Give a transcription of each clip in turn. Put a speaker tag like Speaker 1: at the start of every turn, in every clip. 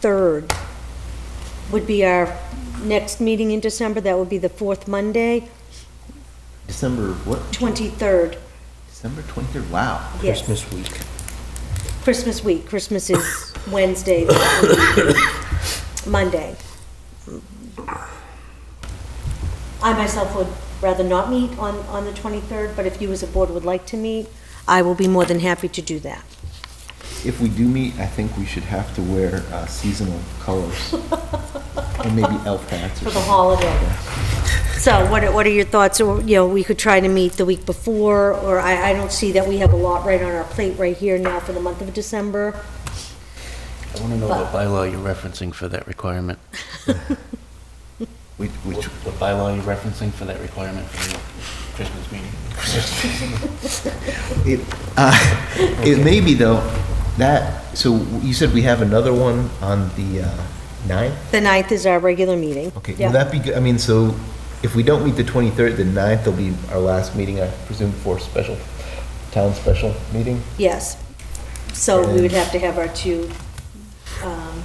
Speaker 1: 23rd would be our next meeting in December, that would be the fourth Monday,
Speaker 2: December what?
Speaker 1: 23rd,
Speaker 2: December 23rd. Wow.
Speaker 1: yes.
Speaker 3: Christmas week.
Speaker 1: Christmas week, Christmas is Wednesday, the Monday. I myself would rather not meet on, on the 23rd, but if you as a board would like to meet, I will be more than happy to do that.
Speaker 2: If we do meet, I think we should have to wear uh, seasonal colors and maybe elf hats
Speaker 1: For
Speaker 2: or
Speaker 1: the
Speaker 2: something.
Speaker 1: holiday. So what are, what are your thoughts, or, you know, we could try to meet the week before, or I, I don't see that we have a lot right on our plate right here now for the month of December.
Speaker 3: I want to know what bylaw you're referencing for that requirement.
Speaker 2: Which,
Speaker 3: What
Speaker 2: which,
Speaker 3: what bylaw you're referencing for that requirement for your Christmas meeting?
Speaker 2: it, uh, it may be though, that, so you said we have another one on the uh, 9th?
Speaker 1: The 9th is our regular meeting.
Speaker 2: Okay,
Speaker 1: Yeah.
Speaker 2: will that be good? I mean, so if we don't meet the 23rd, the 9th will be our last meeting, I presume, for special, town special meeting?
Speaker 1: Yes. So we would have to have our two, um,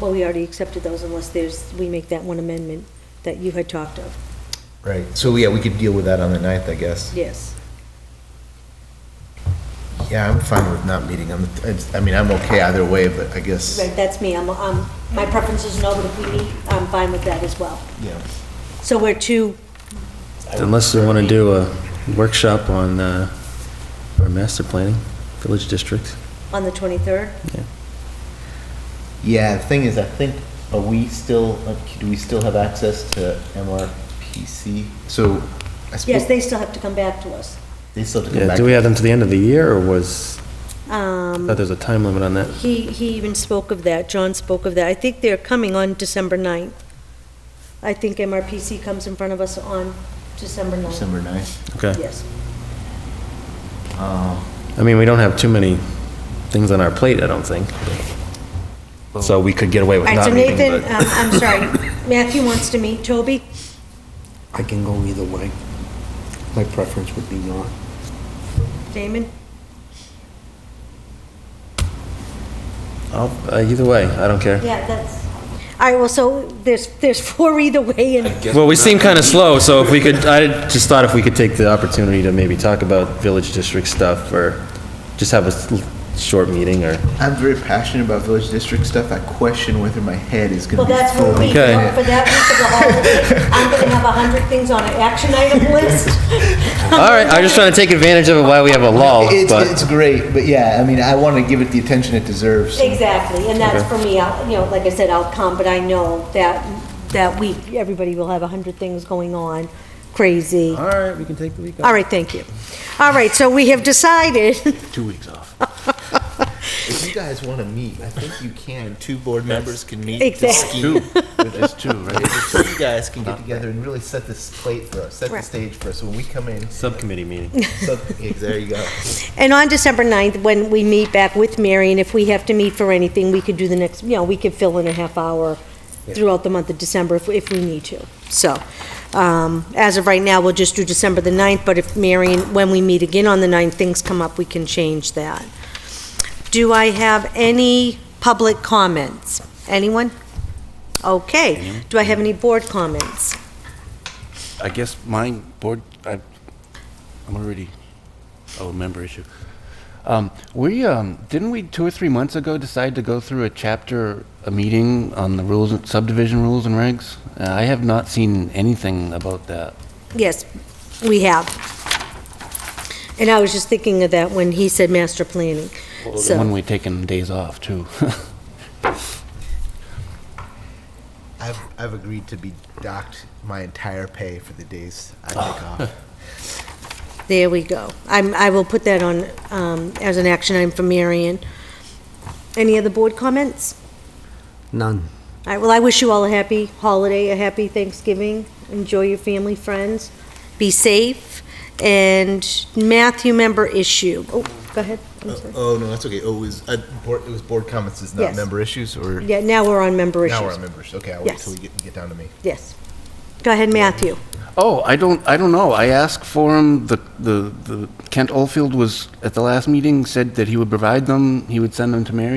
Speaker 1: well, we already accepted those unless there's, we make that one amendment that you had talked of.
Speaker 2: Right, so yeah, we could deal with that on the 9th, I guess.
Speaker 1: Yes.
Speaker 2: Yeah, I'm fine with not meeting on the, it's- I mean, I'm okay either way, but I guess,
Speaker 1: Right, that's me. I'm, I'm- my preference is no, but if we meet, I'm fine with that as well.
Speaker 2: yeah.
Speaker 1: So we're two,
Speaker 4: Unless they want to do a workshop on, uh, or master planning, village district.
Speaker 1: on the 23rd?
Speaker 2: Yeah, the thing is, I think, are we still, uh, do we still have access to MRPC? So, I suppose.
Speaker 1: Yes, they still have to come back to us.
Speaker 2: They still have to come
Speaker 4: Yeah,
Speaker 2: back.
Speaker 4: do we have them to the end of the year, or was, I
Speaker 1: Um,
Speaker 4: thought there was a time limit on that?
Speaker 1: He, he even spoke of that, John spoke of that. I think they're coming on December 9th. I think MRPC comes in front of us on December 9th.
Speaker 2: December 9th.
Speaker 4: Okay.
Speaker 1: Yes.
Speaker 4: I mean, we don't have too many things on our plate, I don't think. So we could get away
Speaker 1: All
Speaker 4: with
Speaker 1: right, so
Speaker 4: not meeting,
Speaker 1: Nathan,
Speaker 4: but.
Speaker 1: um, I'm sorry, Matthew wants to meet, Toby?
Speaker 5: I can go either way. My preference would be not.
Speaker 1: Damon?
Speaker 4: I'll- uh, Either way, I don't care.
Speaker 1: Yeah, that's, all right, well, so there's, there's four either way, and,
Speaker 4: Well, we seem kind of slow, so if we could, I just thought if we could take the opportunity to maybe talk about village district stuff, or just have a s- short meeting, or.
Speaker 2: I'm very passionate about village district stuff. I question whether my head is
Speaker 1: well,
Speaker 2: going to be
Speaker 1: that's what
Speaker 2: full.
Speaker 1: we, for
Speaker 4: Okay.
Speaker 1: that week of the holiday, I'm gonna have a hundred things on an action item list.
Speaker 4: All right, I'm just trying to take advantage of it while we have a lull,
Speaker 2: It's,
Speaker 4: but,
Speaker 2: it's great, but yeah, I mean, I want to give it the attention it deserves.
Speaker 1: Exactly, and that's for me, I'll- you know, like I said, I'll come, but I know that, that week, everybody will have a hundred things going on, crazy.
Speaker 4: all right, we can take the week off.
Speaker 1: All right, thank you. All right, so we have decided,
Speaker 3: Two weeks off.
Speaker 2: If you guys want to meet, I think you can. Two board members can meet.
Speaker 1: Exactly.
Speaker 3: Two, it's two, right?
Speaker 2: So you guys can get together and really set this plate for us, set the
Speaker 1: Right.
Speaker 2: stage for us. When we come in,
Speaker 4: Subcommittee meeting.
Speaker 2: sub- there you go.
Speaker 1: And on December 9th, when we meet back with Mary, and if we have to meet for anything, we could do the next, you know, we could fill in a half hour throughout the month of December if, if we need to. So, um, as of right now, we'll just do December the 9th, but if Mary, when we meet again on the 9th, things come up, we can change that. Do I have any public comments? Anyone? Okay. Do I have any board comments?
Speaker 3: I guess my board, I, I'm already, oh, member issue. Um, we, um, didn't we two or three months ago decide to go through a chapter, a meeting on the rules, and- subdivision rules and regs? Uh, I have not seen anything about that.
Speaker 1: Yes, we have. And I was just thinking of that when he said master planning. So-
Speaker 3: When we taken days off too.
Speaker 2: I've, I've agreed to be docked my entire pay for the days I take off.
Speaker 1: There we go. I'm, I will put that on, um, as an action item for Marion. Any other board comments?
Speaker 5: None.
Speaker 1: All right, well, I wish you all a happy holiday, a happy Thanksgiving. Enjoy your family, friends. Be safe. And Matthew, member issue. Oh, go ahead. I'm sorry.
Speaker 2: Oh, no, that's okay. Oh, it was, uh, board, it was board comments, it's
Speaker 1: Yes.
Speaker 2: not member issues or?
Speaker 1: Yeah, now we're on member
Speaker 2: Now we're on
Speaker 1: issues.
Speaker 2: members. Okay, I'll wait
Speaker 1: Yes.
Speaker 2: till we get, get down to me.
Speaker 1: Yes. Go ahead, Matthew.
Speaker 3: Oh, I don't, I don't know. I asked for him, the, the, the Kent Oldfield was, at the last meeting, said that he would provide them, he would send them to Mary.